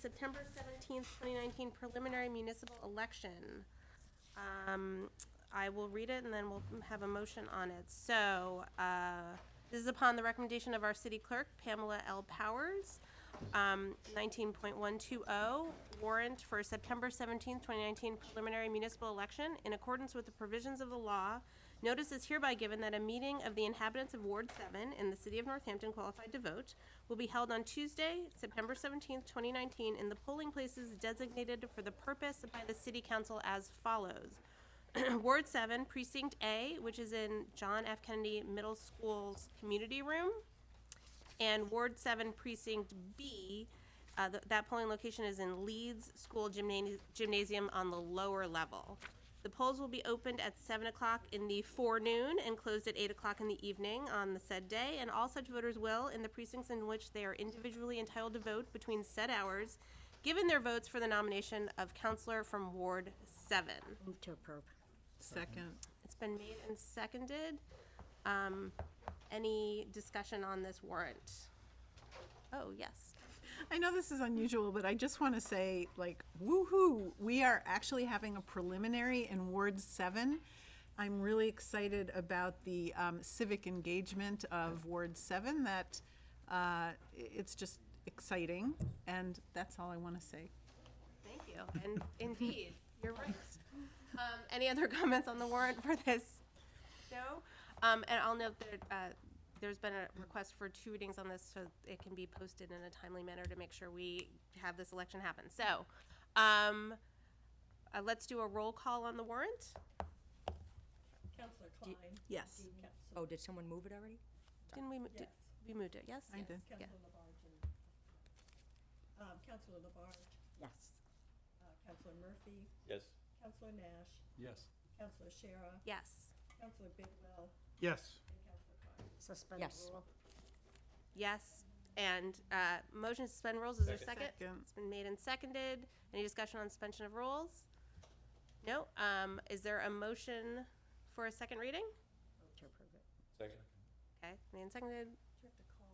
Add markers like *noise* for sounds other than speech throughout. September seventeenth, twenty nineteen preliminary municipal election. Um, I will read it and then we'll have a motion on it. So, uh, this is upon the recommendation of our city clerk, Pamela L. Powers. Um, nineteen point one two oh, warrant for September seventeenth, twenty nineteen preliminary municipal election. In accordance with the provisions of the law, notice is hereby given that a meeting of the inhabitants of Ward Seven in the city of Northampton qualified to vote will be held on Tuesday, September seventeenth, twenty nineteen, in the polling places designated for the purpose by the city council as follows. *coughs* Ward 7, Precinct A, which is in John F. Kennedy Middle School's community room, and Ward 7, Precinct B, uh, th- that polling location is in Leeds School Gymna- Gymnasium on the lower level. The polls will be opened at 7 o'clock in the forenoon and closed at 8 o'clock in the evening on the said day, and all such voters will, in the precincts in which they are individually entitled to vote between said hours, given their votes for the nomination of counselor from Ward 7. Move to approve. Second. It's been made and seconded. Um, any discussion on this warrant? Oh, yes. I know this is unusual, but I just want to say, like, woo-hoo, we are actually having a preliminary in Ward 7. I'm really excited about the um, civic engagement of Ward 7, that uh, i- it's just exciting, and that's all I want to say. Thank you. And indeed, you're right. Um, any other *laughs* comments on the warrant for this? No? Um, and I'll note that, uh, there's been a request for two readings on this so it can be posted in a timely manner to make sure we have this election happen. So, um, uh, let's do a roll call on the warrant. Counselor Klein. Yes. Oh, did someone move it already? Didn't we, mo- did, Yes. we moved it, yes? I Yes. did. Yeah. Counselor Labarge and, um, Counselor Labarge, Yes. uh, Counselor Murphy, Yes. Counselor Nash, Yes. Counselor Shara, Yes. Counselor Bidwell, Yes. and Counselor Klein. Suspend the rule. Yes, and uh, motion to suspend rules, is there a Second. second? Second. It's been made and seconded. Any discussion on suspension of rules? No, um, is there a motion for a second reading? Move to approve it. Second? Okay, made and seconded. *coughs* Do you have to call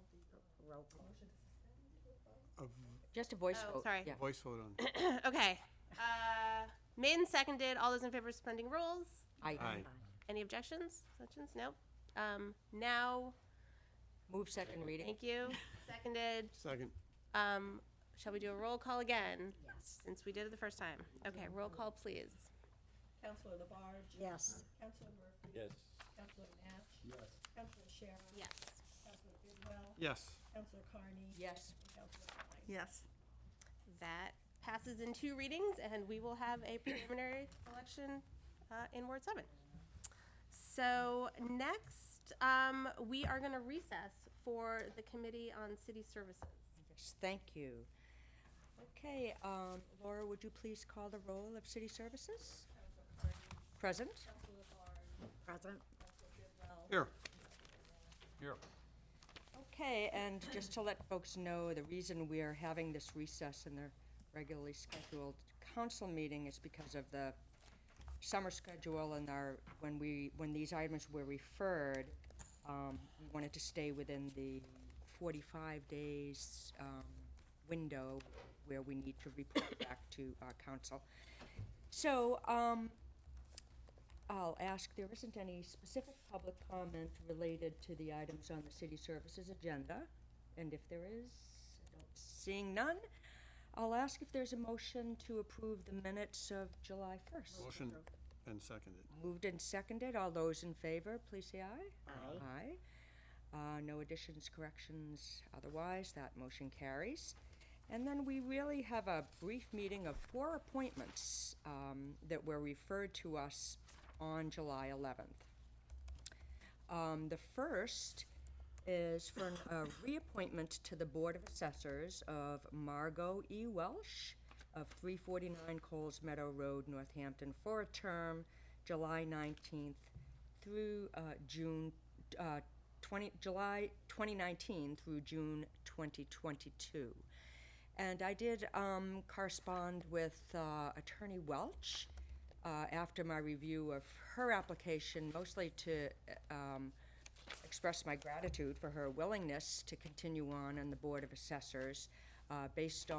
the Roll call. motion to suspend? A Just a voice Oh, vote. sorry. yeah. voice vote on. Okay, uh, made and seconded, all those in favor of suspending rules? Aye. Aye. Any objections, Objections? No. Um, Now, Move second reading. thank you, seconded. Second. Um, Shall we do a roll call again, Yes. since we did it the first time? Okay, roll call, please. Counselor Labarge. Yes. Counselor Murphy. Yes. Counselor Nash. Yes. Counselor Shara. Yes. Counselor Bidwell. Yes. Counselor Carney. Yes. And Counselor Klein. Yes. That passes in two readings, and we will have a preliminary election uh, in Ward 7. So next, um, we are going to recess for the Committee on City Services. Yes, thank you. Okay, um, Laura, would you please call the roll of city services? Present? Present. Here. Okay, and just to let folks know, the reason we are having this recess in the regularly scheduled council meeting is because of the summer schedule and our, when we, when these items were referred, um, we wanted to stay within the forty-five days, um, window where we need to report *coughs* back to, uh, council. So, um, I'll ask, there isn't any specific public comment related to the items on the city services agenda, and if there is, I don't- seeing none, I'll ask if there's a motion to approve the minutes of July 1st. Motion and seconded. Moved and seconded, all those in favor, please say aye. Aye. Aye. Uh, no additions, corrections, otherwise, that motion carries. And then we really have a brief meeting of four appointments, um, that were referred to us on July eleventh. Um, the first is for an- a reappointment to the Board of Assessors of Margot E. Welsh of 349 Coles Meadow Road, Northampton, for a term July 19th through uh, June, uh, 20, July 2019 through June 2022. And I did um, correspond with uh, Attorney Welch uh, after my review of her application, mostly to uh, um, express my gratitude for her willingness to continue on on the Board of Assessors uh, based on.